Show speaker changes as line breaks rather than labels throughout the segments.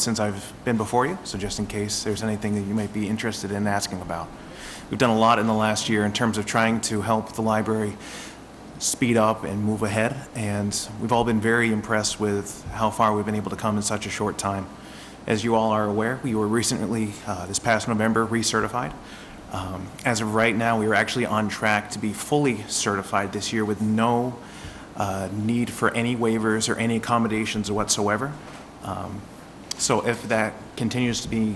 since I've been before you, so just in case there's anything that you might be interested in asking about. We've done a lot in the last year in terms of trying to help the library speed up and move ahead, and we've all been very impressed with how far we've been able to come in such a short time. As you all are aware, we were recently, uh, this past November, recertified. Um, As of right now, we are actually on track to be fully certified this year with no uh, need for any waivers or any accommodations whatsoever. Um, So if that continues to be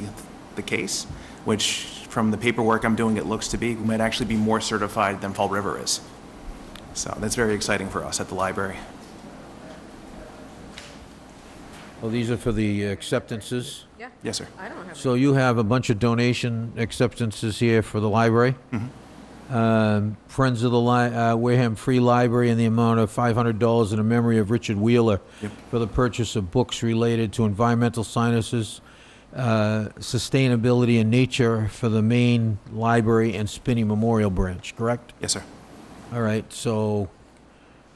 the case, which from the paperwork I'm doing, it looks to be, we might actually be more certified than Fall River is. So that's very exciting for us at the library.
Well, these are for the acceptances.
Yeah.
Yes, sir.
I don't have
So you have a bunch of donation acceptances here for the library. Um, Friends of the Li- uh, Wareham Free Library in the amount of $500 in the memory of Richard Wheeler for the purchase of books related to environmental sciences, uh, sustainability and nature for the main library and Spinney Memorial Branch, correct?
Yes, sir.
All right, so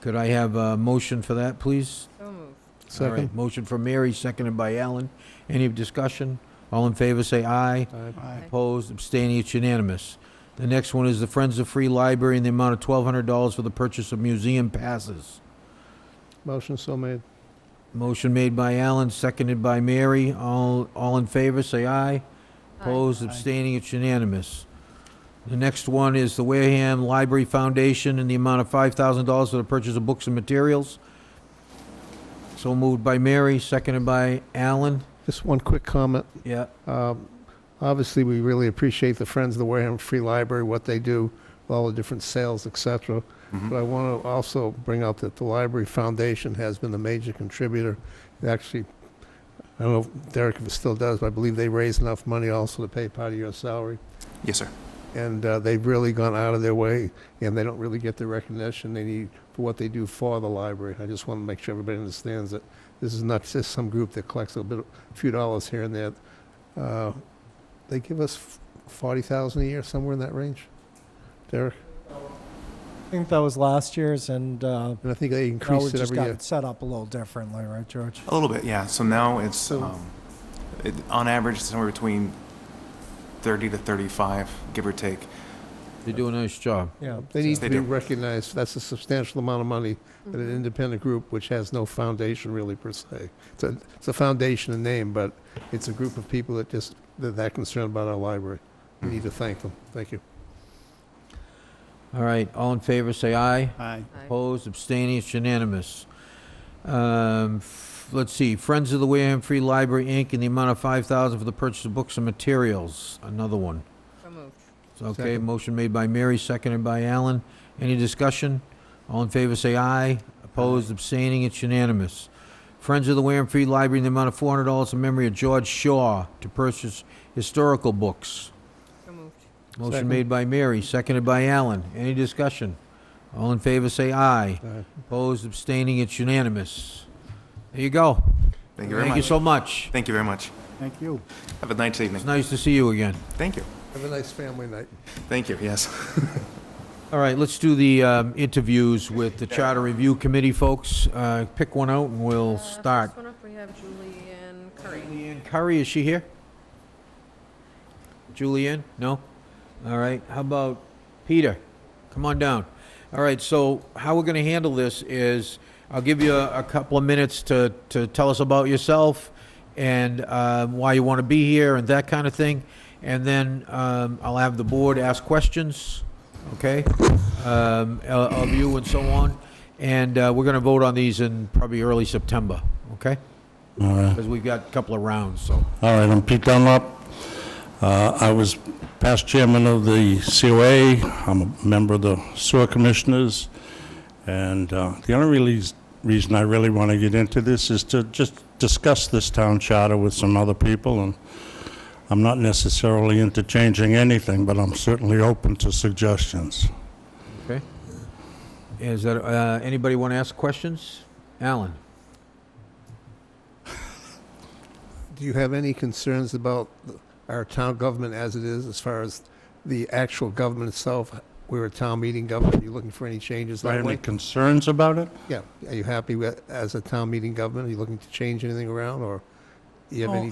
could I have a motion for that, please?
So moved.
All right, Motion from Mary, seconded by Alan. Any discussion? All in favor, say aye.
Aye.
Opposed, abstaining, it's unanimous. The next one is the Friends of Free Library in the amount of $1,200 for the purchase of museum passes.
Motion so made.
Motion made by Alan, seconded by Mary. All, all in favor, say aye. Opposed, abstaining, it's unanimous. The next one is the Wareham Library Foundation in the amount of $5,000 for the purchase of books and materials. So moved by Mary, seconded by Alan.
Just one quick comment.
Yeah,
Um, Obviously, we really appreciate the Friends of the Wareham Free Library, what they do, all the different sales, et cetera. But I want to also bring out that the Library Foundation has been a major contributor. Actually, I don't know if Derek if it still does, but I believe they raised enough money also to pay part of your salary.
Yes, sir.
And uh, they've really gone out of their way, and they don't really get the recognition they need for what they do for the library. I just want to make sure everybody understands that this is not just some group that collects a bit, a few dollars here and there. Uh, They give us f- 40,000 a year, somewhere in that range, Derek?
I think that was last year's, and uh,
And I think they
now we
increase it
just
every
got
year. Oh.
it set up a little differently, right, George?
A little bit, yeah. So now it's,
So-
um, it, on average, it's somewhere between 30 to 35, give or take.
they do a nice job.
Yeah.
They need
They
to be
do.
recognized. That's a substantial amount of money that an independent group, which has no foundation really per se. It's a, it's a foundation in name, but it's a group of people that just, they're that concerned about our library. We need to thank them. Thank you.
All right, all in favor, say aye.
Aye.
Aye.
Opposed, abstaining, it's unanimous. Um, f- Let's see, Friends of the Wareham Free Library, Inc., in the amount of $5,000 for the purchase of books and materials, another one.
So moved.
Okay,
Second.
motion made by Mary, seconded by Allen. Any discussion? All in favor, say aye. Opposed, abstaining, it's unanimous. Friends of the Wareham Free Library in the amount of four hundred dollars in memory of George Shaw to purchase historical books.
So moved.
Motion
Second.
made by Mary, seconded by Allen. Any discussion? All in favor, say aye.
Aye.
Opposed, abstaining, it's unanimous. There you go.
Thank you very
Thank you
much.
so much.
Thank you very much.
Thank you.
Have a nice
It's
evening.
nice to see you again.
Thank you.
Have a nice family night.
Thank you, yes.
All right, let's do the um, interviews with the Charter Review Committee folks. Uh, Pick one out and we'll
Uh,
start.
First one up, we have Julianne Curry.
Julianne Curry, is she here? Julianne? No? All right, how about Peter? Come on down. All right, so how we're gonna handle this is, I'll give you a a couple of minutes to, to tell us about yourself and uh, why you wanna be here and that kind of thing, and then um, I'll have the board ask questions, okay? um, o- Of you and so on, and uh, we're gonna vote on these in probably early September, okay?
All right,
Because we've got a couple of rounds, so.
all right, I'm Pete Dunlop. Uh, I was past chairman of the COA, I'm a member of the sewer commissioners, and uh, the only really s- reason I really want to get into this is to just discuss this town charter with some other people, and I'm not necessarily interchanging anything, but I'm certainly open to suggestions.
Okay. Is that, uh, anybody want to ask questions? Alan?
Do you have any concerns about the- our town government as it is, as far as the actual government itself? We're a town meeting government. Are you looking for any changes
Do I
that
have any
way?
concerns about it?
Yeah. Are you happy with, as a town meeting government? Are you looking to change anything around, or you have
Oh,
any